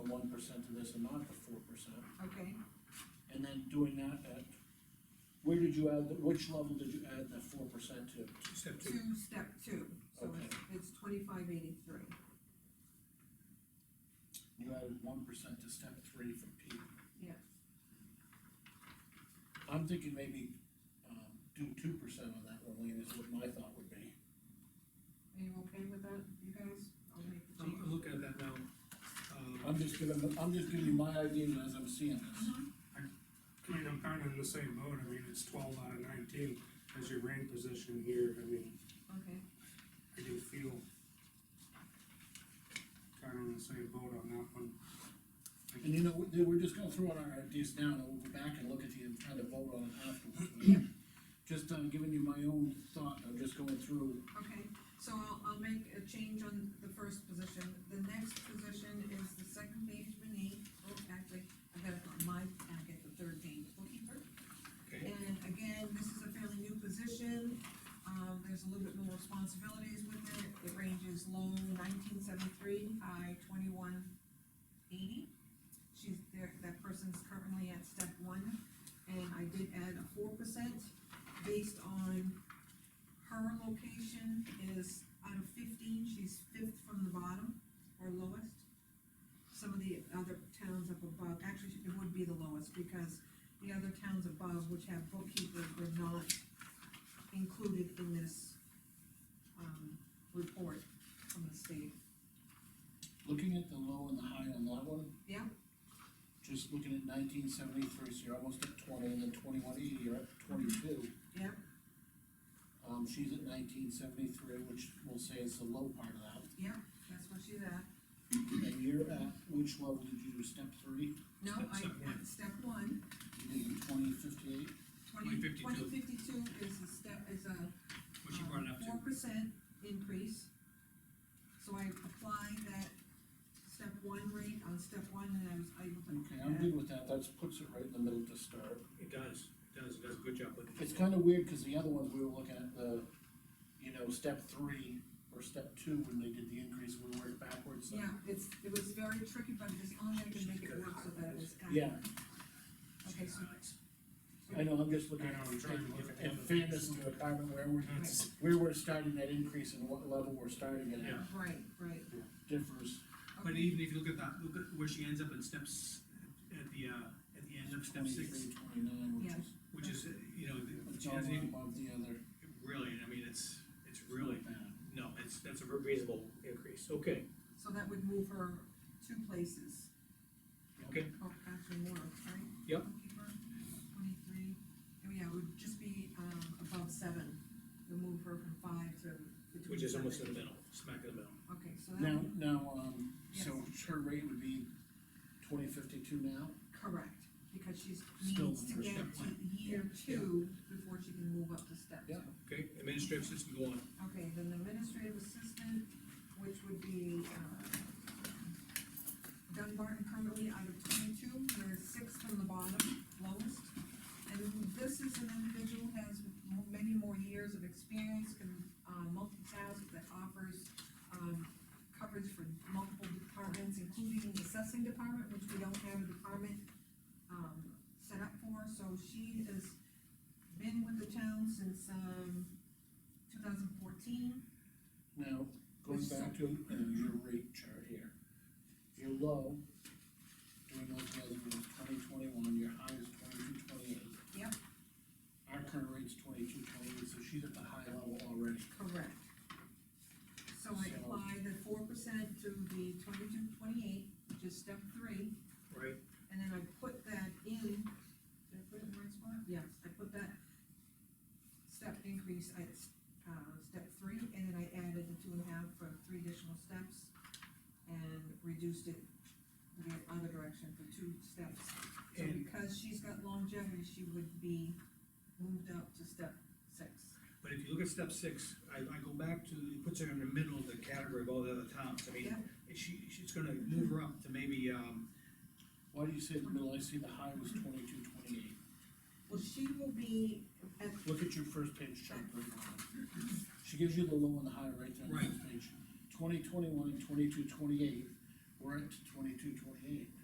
one percent to this and not the four percent, okay, and then doing that at, where did you add, the- which level did you add the four percent to? Step two, two, step two, so it's, it's twenty-five eighty-three. You added one percent to step three from P. Yeah. I'm thinking maybe, um, do two percent on that one, Lean, is what my thought would be. Are you okay with that, you guys? I'll make the I'm, change. I'm looking at that now. Um, I'm just giving, I'm just giving you my ideas as I'm seeing this. I mean, I'm kind of in the same boat, I mean, it's twelve out of nineteen as your rank position here, I mean, Okay, I do feel kind of in the same boat on that one. And you know, we- we're just gonna throw out our ideas now, and we'll go back and look at you and try to vote on it afterwards. Just, uh, giving you my own thought, I'm just going through, okay, so I'll, I'll make a change on the first position, the next position is the second page beneath, oh, actually, I've got it on my packet, the third page, bookkeeper. okay, And again, this is a fairly new position, um, there's a little bit more responsibilities with it, it ranges low nineteen seventy-three, high twenty-one eighty. She's there, that person's currently at step one, and I did add a four percent based on her location is out of fifteen, she's fifth from the bottom, or lowest. Some of the other towns up above, actually, it would be the lowest, because the other towns above which have bookkeepers were not included in this, um, report from the state. looking at the low and the high on that one. Yeah. Just looking at nineteen seventy-three, so you're almost at twenty, and then twenty-one eighty, you're at twenty-two. Yeah. Um, she's at nineteen seventy-three, which we'll say is the low part of that, Yeah, that's what she's at. and you're at, which level did you do, step three? No, Step- I, step one. step one, You did twenty fifty-eight, twenty, 2052. twenty fifty-two is a step, is a what you brought it up to. Four percent increase. So I applied that step one rate on step one, and I was able to. okay, I'm good with that, that's, puts it right in the middle to start. It does, it does, it does a good job with it. It's kinda weird, cause the other ones we were looking at the, you know, step three or step two when they did the increase, we worked backwards. so- Yeah, it's, it was very tricky, but it's only I can make it work so that it was. accurate. Yeah, Okay, so, I know, I'm just looking I know, at, I'm trying to look at at- at fairness and the department where we're, That's- where we're starting that increase and what level we're starting it Yeah. at right, right. differs. But Okay. even if you look at that, look at where she ends up in steps, at the, uh, at the end of step six, 23, 29, which Yeah. is, which is, uh, you know, the- it's she all doesn't even, above the other. really, I mean, it's, it's really, bad. no, it's, that's a reasonable increase, okay, So that would move her two places, okay, or actually more, right? Yep. Bookkeeper, Twenty-three, oh yeah, it would just be, um, above seven, we move her from five to. between which is almost in seven. the middle, smack in the middle. Okay, so that, Now, now, um, so her rate would be twenty fifty-two now? correct, because she's Still needs to under get step to one. year Yeah. two before she can move up to step two. Yeah. Okay, administrative system, go on. Okay, then the administrative assistant, which would be, uh, Dunbarton currently out of twenty-two, we're six from the bottom, lowest. And this is an individual who has m- many more years of experience, can, uh, multitask, that offers, um, coverage for multiple departments, including the assessing department, which we don't have a department, um, set up for, so she has been with the town since, um, two thousand fourteen, Now, going back to uh, your rate chart here, your low, doing those guys was twenty twenty-one, your high is twenty-two twenty-eight. Yep. Our current rate's twenty-two twenty-eight, so she's at the high level already. Correct. So I So- applied the four percent to the twenty-two, twenty-eight, which is step three, Right. and then I put that in, did I put it in the right spot? Yes, I put that step increase at, uh, step three, and then I added the two and a half for three additional steps, and reduced it the other direction for two steps. So And- because she's got longevity, she would be moved up to step six. But if you look at step six, I, I go back to, it puts her in the middle of the category of all the other towns, I mean, Yeah. she, she's gonna move her up to maybe, um, Why do you say the middle, I see the high was twenty-two twenty-eight, Well, she will be at look at your first page chart right now. She gives you the low and the high right there on the Right. first page. Twenty twenty-one and twenty-two twenty-eight, we're at twenty-two twenty-eight.